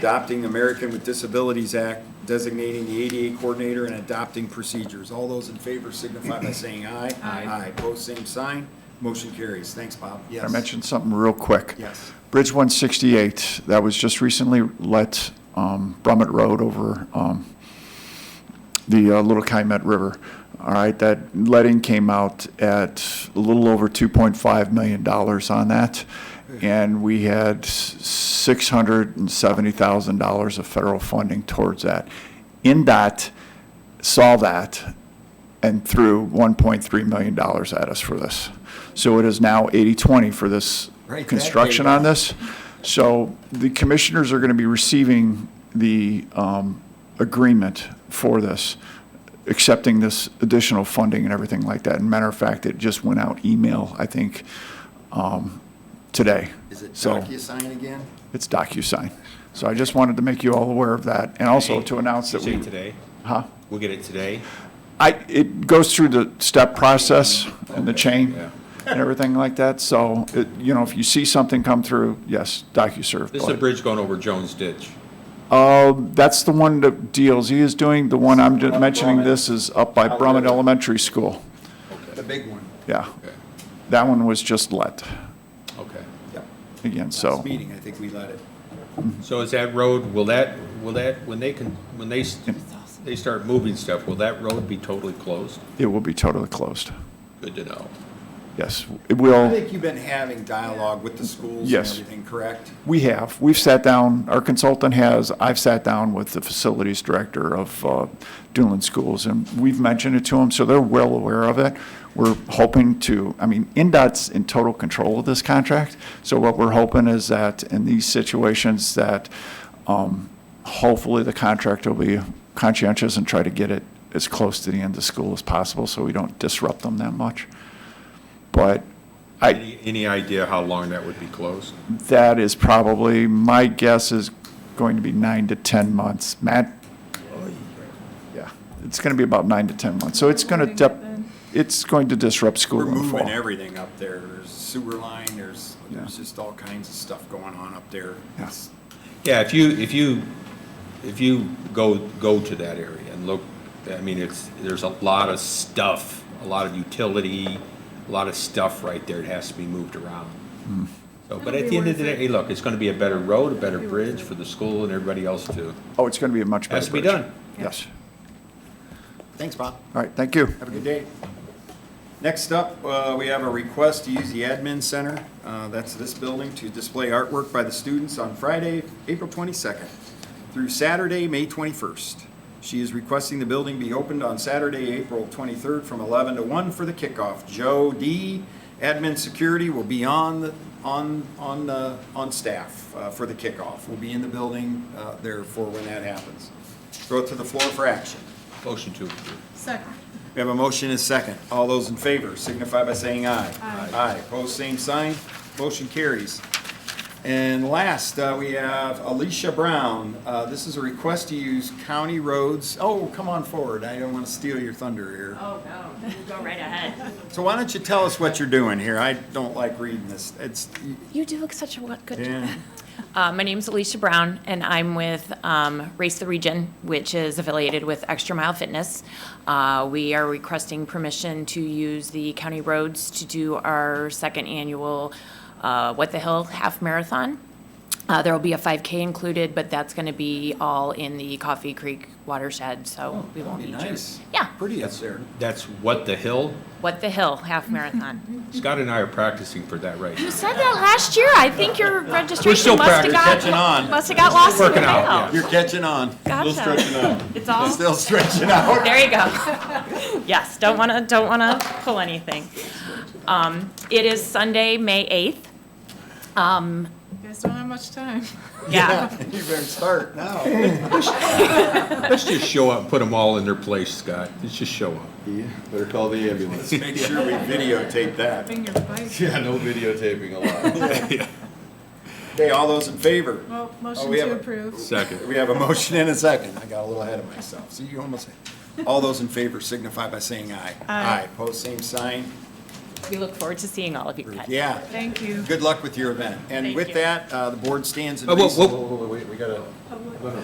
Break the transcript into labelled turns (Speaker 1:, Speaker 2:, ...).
Speaker 1: adopting American with Disabilities Act, designating the ADA coordinator, and adopting procedures. All those in favor signify by saying aye.
Speaker 2: Aye.
Speaker 1: Aye, pose same sign, motion carries. Thanks, Bob.
Speaker 3: I
Speaker 1: Yes.
Speaker 3: mentioned something real quick.
Speaker 1: Yes.
Speaker 3: Bridge 168, that was just recently let, um, Brummett Road over um, the uh, Little Calumet River. All right, that letting came out at a little over $2.5 million on that, and we had $670,000 of federal funding towards that. NDOT saw that and threw $1.3 million at us for this. So it is now 80/20 for this
Speaker 1: Right, that
Speaker 3: construction
Speaker 1: big.
Speaker 3: on this. So the commissioners are going to be receiving the um, agreement for this, accepting this additional funding and everything like that. And matter of fact, it just went out email, I think, um, today.
Speaker 1: Is it
Speaker 3: So
Speaker 1: DocuSign again?
Speaker 3: it's DocuSign. So I just wanted to make you all aware of that and also to announce that
Speaker 4: Did you
Speaker 3: we.
Speaker 4: say today?
Speaker 3: Huh?
Speaker 4: We'll get it today.
Speaker 3: I, it goes through the step process and the chain
Speaker 4: yeah.
Speaker 3: and everything like that. So, it- you know, if you see something come through, yes, DocuServe.
Speaker 4: This is
Speaker 3: but-
Speaker 4: a bridge going over Jones Ditch.
Speaker 3: Uh, that's the one that DLZ is doing. The one I'm just mentioning this is up by Brummett Elementary School.
Speaker 1: The big one.
Speaker 3: Yeah,
Speaker 4: Okay,
Speaker 3: that one was just let
Speaker 4: okay.
Speaker 1: Yep.
Speaker 3: again,
Speaker 1: Last
Speaker 3: so.
Speaker 1: meeting, I think we let it.
Speaker 4: So is that road, will that, will that, when they can, when they, s- they start moving stuff, will that road be totally closed?
Speaker 3: It will be totally closed.
Speaker 4: Good to know.
Speaker 3: Yes, it
Speaker 1: I
Speaker 3: will.
Speaker 1: think you've been having dialogue with the schools and
Speaker 3: Yes.
Speaker 1: everything, correct?
Speaker 3: We have, we've sat down, our consultant has, I've sat down with the facilities director of uh, Dunlin Schools, and we've mentioned it to them, so they're well aware of it. We're hoping to, I mean, NDOT's in total control of this contract, so what we're hoping is that in these situations that um, hopefully the contractor will be conscientious and try to get it as close to the end of school as possible, so we don't disrupt them that much. But I,
Speaker 4: Any, any idea how long that would be closed?
Speaker 3: that is probably, my guess is going to be nine to 10 months. Matt? Yeah, it's going to be about nine to 10 months. So it's going to, it's going to disrupt school
Speaker 1: We're
Speaker 3: in the
Speaker 1: moving
Speaker 3: fall.
Speaker 1: everything up there. There's sewer line, there's, there's
Speaker 3: Yeah.
Speaker 1: just all kinds of stuff going on up there.
Speaker 3: Yeah.
Speaker 1: It's-
Speaker 4: Yeah, if you, if you, if you go, go to that area and look, I mean, it's, there's a lot of stuff, a lot of utility, a lot of stuff right there, it has to be moved around.
Speaker 5: Hmm.
Speaker 4: So, but at the end of the day, hey, look, it's gonna be a better road, a better bridge for the school and everybody else too.
Speaker 3: Oh, it's going to be a much better
Speaker 4: Has to be
Speaker 3: bridge.
Speaker 4: done.
Speaker 3: Yes.
Speaker 1: Thanks, Bob.
Speaker 3: All right, thank you.
Speaker 1: Have a good day. Next up, uh, we have a request to use the admin center, uh, that's this building, to display artwork by the students on Friday, April 22nd through Saturday, May 21st. She is requesting the building be opened on Saturday, April 23rd from 11 to 1 for the kickoff. Joe D., admin security, will be on, the- on, on, uh, on staff uh, for the kickoff. Will be in the building uh, there for when that happens. Throw it to the floor for action.
Speaker 4: Motion to approve.
Speaker 2: Second.
Speaker 1: We have a motion and a second. All those in favor signify by saying aye.
Speaker 2: Aye.
Speaker 1: Aye, opposed, same sign, motion carries. And last, uh, we have Alicia Brown. Uh, This is a request to use county roads. Oh, come on forward, I don't want to steal your thunder here.
Speaker 6: Oh, no, you go right ahead.
Speaker 1: So why don't you tell us what you're doing here? I don't like reading this. It's,
Speaker 6: You do such a good
Speaker 1: yeah,
Speaker 6: Uh, my name's Alicia Brown, and I'm with, um, Race the Region, which is affiliated with Extra Mile Fitness. Uh, we are requesting permission to use the county roads to do our second annual, uh, What the Hill Half Marathon. Uh, there will be a 5K included, but that's going to be all in the Coffee Creek watershed, so we won't
Speaker 1: be
Speaker 6: need you.
Speaker 1: nice.
Speaker 6: Yeah,
Speaker 1: Pretty up there.
Speaker 4: That's what the hill?
Speaker 6: What the Hill Half Marathon.
Speaker 4: Scott and I are practicing for that right now.
Speaker 6: You said that last year. I think your
Speaker 4: still
Speaker 6: registration must have
Speaker 4: practicing.
Speaker 1: Catching on.
Speaker 6: got, must have got lost in the
Speaker 4: working out, yeah.
Speaker 6: mail.
Speaker 1: You're catching on.
Speaker 6: Gotcha.
Speaker 1: Still stretching out.
Speaker 6: It's all,
Speaker 1: Still stretching out.
Speaker 6: there you go. Yes, don't want to, don't want to pull anything. Um, It is Sunday, May 8th. Um,
Speaker 2: You guys don't have much time.
Speaker 6: Yeah,
Speaker 1: You better start now.
Speaker 4: Let's just show up, put them all in their place, Scott. Let's just show up.
Speaker 5: Better call the ambulance.
Speaker 1: Make sure we videotape that.
Speaker 2: Finger bite.
Speaker 5: Yeah, no videotaping allowed.
Speaker 1: Okay, all those in favor?
Speaker 2: Well,
Speaker 1: Oh,
Speaker 2: motion
Speaker 1: we have
Speaker 2: to
Speaker 1: a-
Speaker 2: approve.
Speaker 4: Second.
Speaker 1: We have a motion and a second. I got a little ahead of myself. See, you almost, all those in favor signify by saying aye.
Speaker 2: Aye.
Speaker 1: Pose same sign.
Speaker 6: we look forward to seeing all of you guys.
Speaker 1: Yeah,
Speaker 2: Thank you.
Speaker 1: good luck with your event. And
Speaker 6: Thank
Speaker 1: with
Speaker 6: you.
Speaker 1: that, uh, the board stands in
Speaker 4: Oh, whoa,
Speaker 1: recess.
Speaker 4: whoa,
Speaker 5: Wait, we gotta.